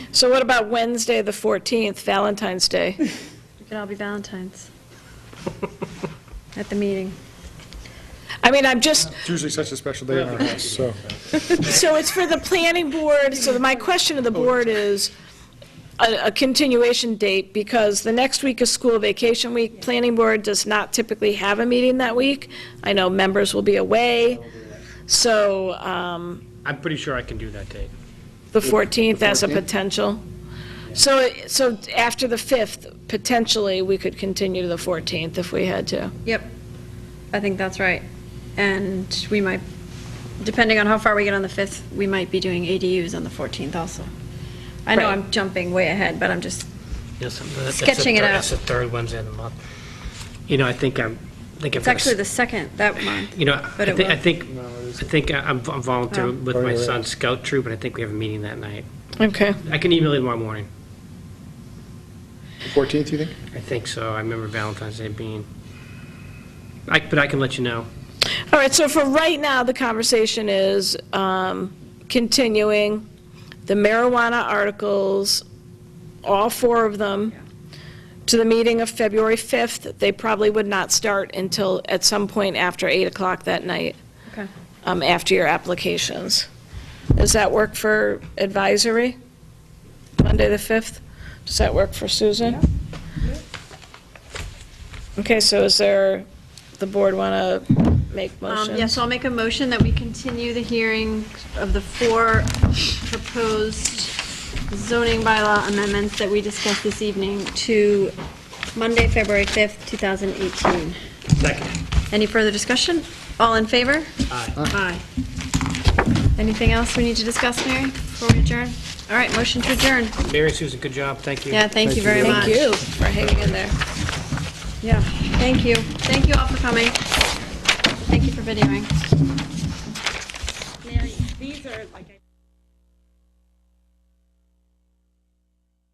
So what about Wednesday, the 14th, Valentine's Day? We could all be Valentines at the meeting. I mean, I'm just, It's usually such a special day in our house, so. so it's for the planning board, so my question to the board is a a continuation date, because the next week is school vacation week. Planning board does not typically have a meeting that week. I know members will be away, so um, I'm pretty sure I can do that date. the 14th as a potential. So, so after the 5th, potentially, we could continue to the 14th if we had to. Yep, I think that's right. And we might, depending on how far we get on the 5th, we might be doing ADUs on the 14th also. I know Right. I'm jumping way ahead, but I'm just, Yes, I'm- that's the Sketching it third- out. That's the third Wednesday of the month. You know, I think I'm, I think I've it's got, actually a the s- second that month. you know, but I it think, I will. think, I think I- I'm v- I'm volunteering with Oh, my yeah. son's scout troop, and I think we have a meeting that night. Okay. I can email you tomorrow morning. 14th, you think? I think so. I remember Valentine's Day being, I, but I can let you know. All right, so for right now, the conversation is um, continuing the marijuana articles, all four of them, to the meeting of February 5th. They probably would not start until at some point after 8 o'clock that night, Okay. um, after your applications. Does that work for advisory? Monday, the 5th? Does that work for Susan? Okay, so is there, the board want to make Um, motions? Yeah, so I'll make a motion that we continue the hearing of the four proposed zoning bylaw amendments that we discussed this evening to Monday, February 5th, 2018. Second. Any further discussion? All in favor? Aye. Aye. Anything else we need to discuss, Mary, before we adjourn? All right, motion to adjourn. Mary and Susan, good job. Thank you. Yeah, thank you very much. Thank you for hanging in there. Yeah, thank you. Thank you all for coming. Thank you for videoing. Mary, these are like I.